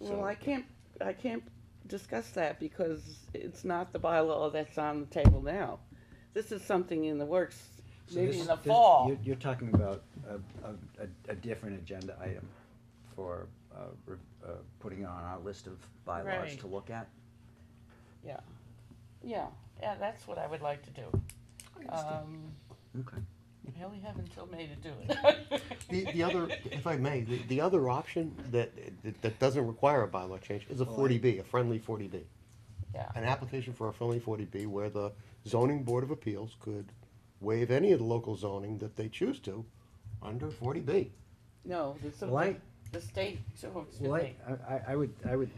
Well, I so, can't, I can't discuss that because it's not the bylaw that's on the table now. This is something in the works, So maybe this- in the this- fall. You're, you're talking about a, a, a, a different agenda item for, uh, re- uh, putting on our list of bylaws Right. to look at? Yeah, yeah, yeah, that's what I would like to do. Um, Okay. I only have until May to do it. The, the other, if I may, the, the other option that, that, that doesn't require a bylaw change is a Oh, forty B, a friendly forty B. Yeah, An application for a friendly forty B where the zoning board of appeals could waive any of the local zoning that they choose to under forty B. no, there's some, Well, I- the state, oh, excuse Well, I, me. I, I would, I would,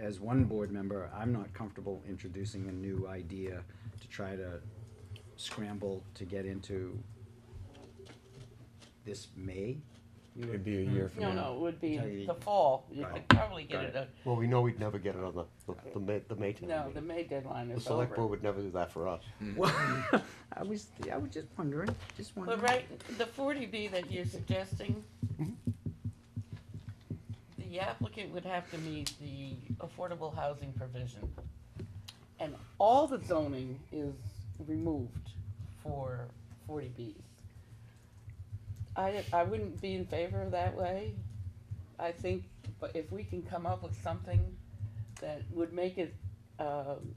as one board member, I'm not comfortable introducing a new idea to try to scramble to get into this May. You it'd would- be a year from now. No, no, it would be Okay. the fall. You Got could it. probably get Got it, it. uh, Well, we know we'd never get it on the, the, the May, the May town no, the meeting. May deadline The is select board over. would never do that for us. Well, I was, I was just wondering, just But wondering. right, the forty B that you're suggesting, Mhm. the applicant would have to meet the affordable housing provision. And all the zoning is removed for forty Bs. I, I wouldn't be in favor of that way. I think, but if we can come up with something that would make it, um,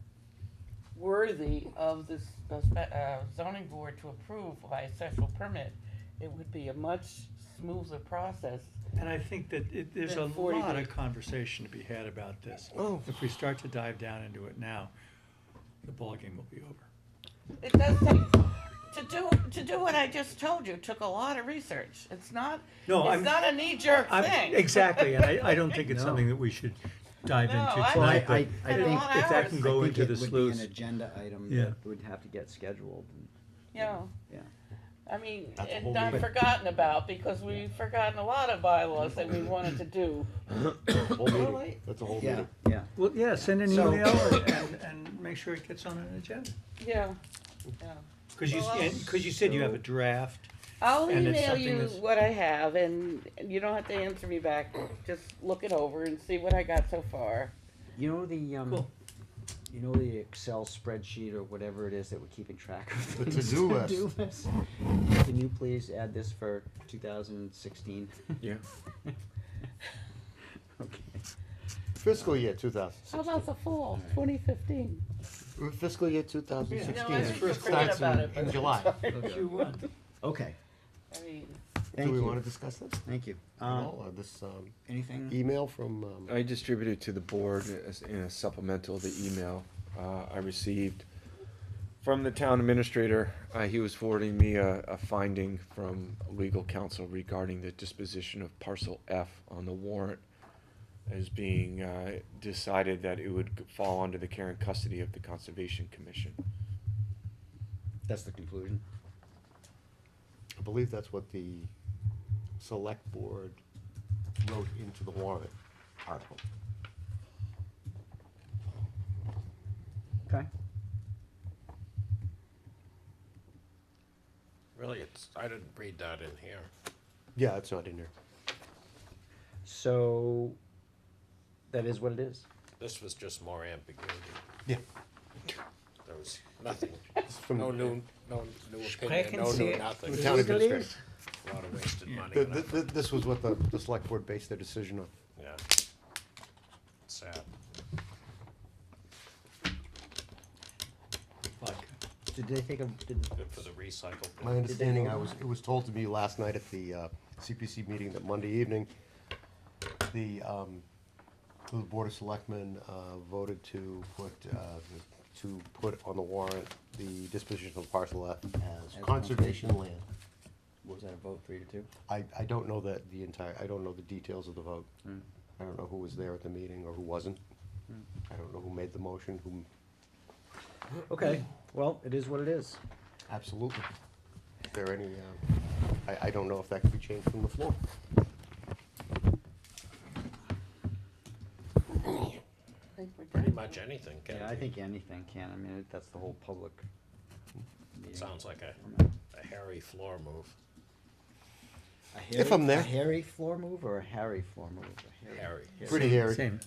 worthy of this, the spe- uh, zoning board to approve by a special permit, it would be a much smoother process. And I think that it, there's a Then 40 lot days. of conversation to be had about this. Oh. If we start to dive down into it now, the ballgame will be over. It does take, to do, to do what I just told you took a lot of research. It's not, No, it's I'm- not a knee-jerk I'm- thing. Exactly, and I, I don't think it's No. something that we should dive No, into I tonight. don't- Well, I, but I, I And a think lot If hours. that can go I think into it the would be An sleuth, agenda item Yeah. that would have to get scheduled. and- Yeah, Yeah. I mean, That's a it's whole not meeting. forgotten about because we've forgotten a lot of bylaws that we wanted to do. The Whole meeting, Really? that's a whole Yeah, meeting. yeah. well, yeah, send an So- email and, and- and make sure it gets on an agenda. Yeah, yeah. Cause you, Well, I'll- cause you said you have a draft. I'll And it's email something you that's- what I have, and you don't have to answer me back. Just look it over and see what I got so far. You know the, um, Cool. you know the Excel spreadsheet or whatever it is that we're keeping track of? The things to-do to list. do list? Can you please add this for two thousand and sixteen? Yeah. Okay. Fiscal year two thousand How sixteen. about the fall, 2015? Fiscal year two thousand No, sixteen. I It's think first forget class starts in, about it. in but- July. You won. Okay, I mean, thank Do we want you, to discuss this? thank you. at Um, all, or this um, anything? email from, um, I distributed to the board as- in a supplemental, the email uh, I received from the town administrator. Uh, He was forwarding me a a finding from legal counsel regarding the disposition of parcel F on the warrant as being uh, decided that it would fall under the care and custody of the Conservation Commission. That's the conclusion. I believe that's what the select board wrote into the warrant article. Okay. Really, it's, I didn't read that in here. Yeah, it's not in there. So, that is what it is. This was just more ambiguity. Yeah. There was nothing, It's from no the, new, no new opinion, no new nothing. the town administrator. A lot of wasted money Th- and th- effort, th- This was what the, the select board based their decision on. yeah. Sad. Vodka. Did they think of, did, Good for the recycle. bin. My understanding, I vote was, on it? it was told to me last night at the uh, CPC meeting that Monday evening, the, um, the Board of Selectmen uh, voted to put, uh, to put on the warrant the disposition of parcel F as As conservation land. was that a vote three to two? I, I don't know that the entire, I don't know the details of the vote. Mm. I don't know who was there at the meeting or who wasn't. I don't know who made the motion, who, Okay, well, it is what it is. absolutely. Is there any, um, I, I don't know if that could be changed from the floor. I think we're Pretty done. much anything can Yeah, I be. think anything can, I mean, it- that's the whole public. meeting. Sounds like a, a hairy floor move. I A If I'm hairy- a there. hairy floor move or a Harry floor move? A hairy- Harry. Pretty hairy. Same.